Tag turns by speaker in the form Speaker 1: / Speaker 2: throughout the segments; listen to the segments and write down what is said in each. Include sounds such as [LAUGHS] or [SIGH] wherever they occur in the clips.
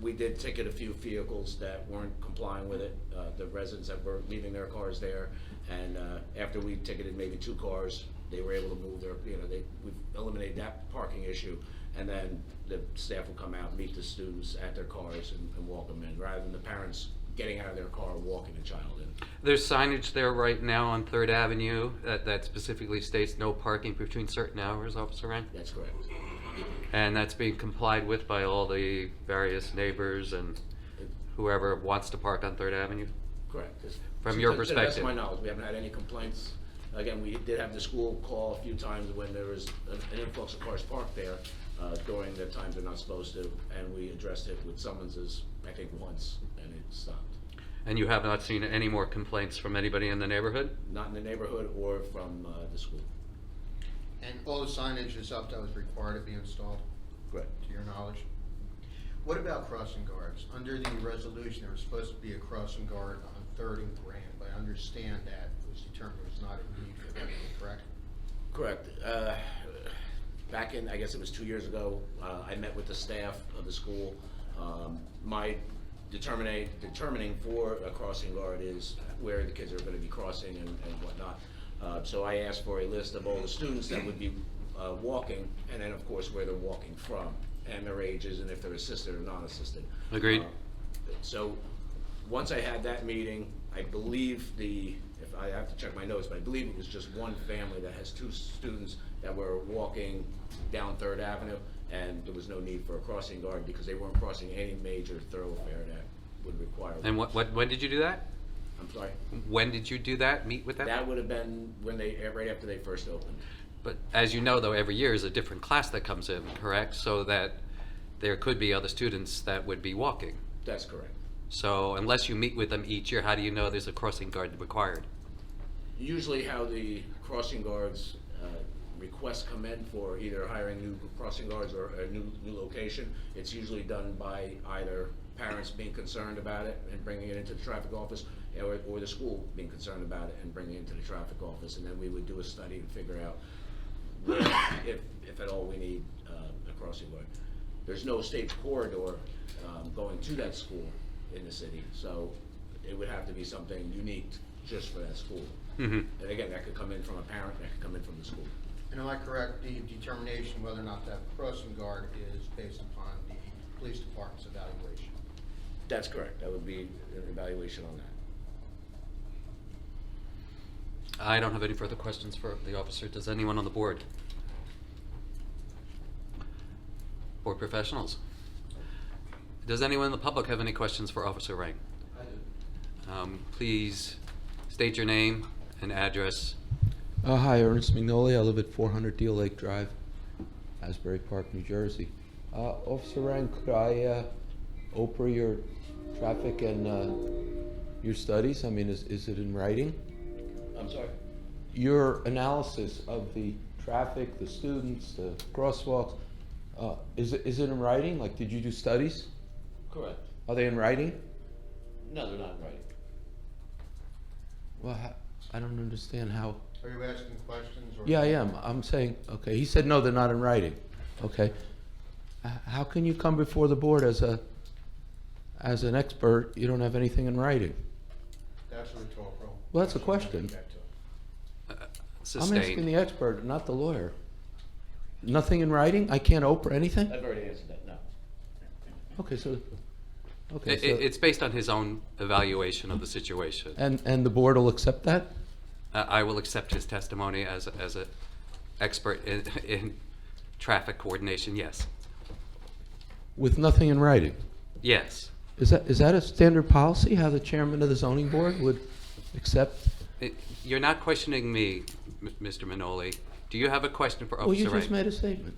Speaker 1: we did ticket a few vehicles that weren't complying with it, uh, the residents that were leaving their cars there. And, uh, after we ticketed maybe two cars, they were able to move their, you know, they, we've eliminated that parking issue. And then the staff will come out, meet the students at their cars and, and walk them in, rather than the parents getting out of their car, and walking the child in.
Speaker 2: There's signage there right now on Third Avenue that, that specifically states no parking between certain hours, Officer Ryan?
Speaker 1: That's correct.
Speaker 2: And that's being complied with by all the various neighbors and whoever wants to park on Third Avenue?
Speaker 1: Correct. 'cause-
Speaker 2: From your
Speaker 1: to- To the best of
Speaker 2: perspective.
Speaker 1: my knowledge, we haven't had any complaints. Again, we did have the school call a few times when there was an an influx of cars parked there uh, during the times they're not supposed to, and we addressed it with summonses, I think, once, and it stopped.
Speaker 2: And you have not seen any more complaints from anybody in the neighborhood?
Speaker 1: Not in the neighborhood or from uh, the school.
Speaker 3: And all the signage is up that was required to be installed,
Speaker 1: Correct.
Speaker 3: to your knowledge? What about crossing guards? Under the resolution, there was supposed to be a crossing guard on Third and Grand, but I understand that was determined there was not a need for that, correct?
Speaker 1: Correct. Uh, Back in, I guess it was two years ago, uh, I met with the staff of the school. Um, My determinate, determining for a crossing guard is where the kids are gonna be crossing and and whatnot. Uh, So I asked for a list of all the students that would be uh, walking, and then, of course, where they're walking from, and their ages, and if they're assisted or non-assisted.
Speaker 2: Agreed.
Speaker 1: Uh, So, once I had that meeting, I believe the, if I have to check my notes, but I believe it was just one family that has two students that were walking down Third Avenue, and there was no need for a crossing guard because they weren't crossing any major thoroughfare that would require. one.
Speaker 2: And what, what, when did you do that?
Speaker 1: I'm sorry.
Speaker 2: When did you do that, meet with
Speaker 1: That would have been when they, right after they first opened.
Speaker 2: But as you know, though, every year is a different class that comes in, correct? So that there could be other students that would be walking.
Speaker 1: That's correct.
Speaker 2: So unless you meet with them each year, how do you know there's a crossing guard required?
Speaker 1: usually how the crossing guards uh, requests come in for either hiring new crossing guards or a new, new location, it's usually done by either parents being concerned about it and bringing it into the traffic office, or, or the school being concerned about it and bringing it into the traffic office, and then we would do a study and figure out where, [COUGHS] if, if at all we need uh, a crossing guard. There's no state corridor um, going to that school in the city, so it would have to be something unique just for that school.
Speaker 2: Mhm.
Speaker 1: And again, that could come in from a parent, that could come in from the school.
Speaker 3: And am I correct, the determination whether or not that crossing guard is based upon the police department's evaluation?
Speaker 1: That's correct, that would be an evaluation on that.
Speaker 2: I don't have any further questions for the officer. Does anyone on the board? Board professionals? Does anyone in the public have any questions for Officer Rank?
Speaker 4: I do.
Speaker 2: Um, please state your name and address.
Speaker 4: Uh, hi, Ernest Magnoli. I live at 400 Deal Lake Drive, Asbury Park, New Jersey. Uh, Officer Ryan, could I uh, open your traffic and uh, your studies? I mean, is, is it in writing?
Speaker 1: I'm sorry?
Speaker 4: Your analysis of the traffic, the students, the crosswalks, uh, is, it, is it in writing? Like, did you do studies?
Speaker 1: Correct.
Speaker 4: Are they in writing?
Speaker 1: No, they're not right.
Speaker 4: Well, ha- I don't understand how.
Speaker 3: Are you asking questions or?
Speaker 4: Yeah, I am. I'm saying, okay, he said, no, they're not in writing. Okay. H- How can you come before the board as a, as an expert, you don't have anything in writing?
Speaker 3: That's a rhetorical.
Speaker 4: Well, that's a
Speaker 3: I'll
Speaker 4: question.
Speaker 3: get back to it.
Speaker 4: I'm asking the
Speaker 2: Sustained.
Speaker 4: expert, not the lawyer. Nothing in writing? I can't open anything?
Speaker 2: Uh,
Speaker 1: I've already answered that, no.
Speaker 4: Okay, so, okay,
Speaker 2: It,
Speaker 4: so.
Speaker 2: it's based on his own evaluation of the situation.
Speaker 4: And, and the board will accept that?
Speaker 2: I I will accept his testimony as, a- as an expert in, [LAUGHS] in traffic coordination, yes.
Speaker 4: With nothing in writing?
Speaker 2: Yes.
Speaker 4: Is that, is that a standard policy, how the chairman of the zoning board would accept?
Speaker 2: It- Eh, You're not questioning me, M- Mr. Minoli. Do you have a question for oh,
Speaker 4: Well, Oh, you
Speaker 2: Officer
Speaker 4: just
Speaker 2: Wright?
Speaker 4: made a statement.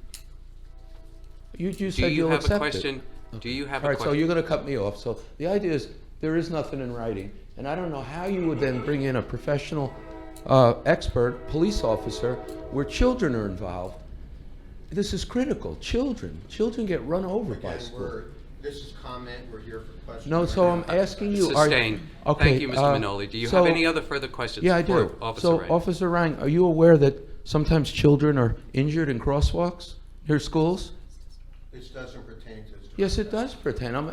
Speaker 4: You, you
Speaker 2: Do
Speaker 4: said
Speaker 2: you
Speaker 4: you'll
Speaker 2: have a
Speaker 4: accept it.
Speaker 2: question? Do you have
Speaker 4: All
Speaker 2: a
Speaker 4: right, so you're
Speaker 2: question?
Speaker 4: gonna cut me off. So the idea is, there is nothing in writing, and I don't know how you would then bring in a professional, uh, expert, police officer, where children are involved. This is critical, children, children get run over by
Speaker 3: Again,
Speaker 4: school.
Speaker 3: we're, this is comment, we're here for questions.
Speaker 4: No,
Speaker 3: right
Speaker 4: so
Speaker 3: now.
Speaker 4: I'm asking you, are.
Speaker 2: Sustained.
Speaker 4: Okay,
Speaker 2: Thank you,
Speaker 4: uh,
Speaker 2: Mr. Minoli. Do you have
Speaker 4: so-
Speaker 2: any other further questions?
Speaker 4: Yeah, I
Speaker 2: for
Speaker 4: do.
Speaker 2: Officer
Speaker 4: So,
Speaker 2: Wright?
Speaker 4: Officer Ryan, are you aware that sometimes children are injured in crosswalks near schools?
Speaker 3: This doesn't pertain to. this.
Speaker 4: Yes, it does pertain. I'm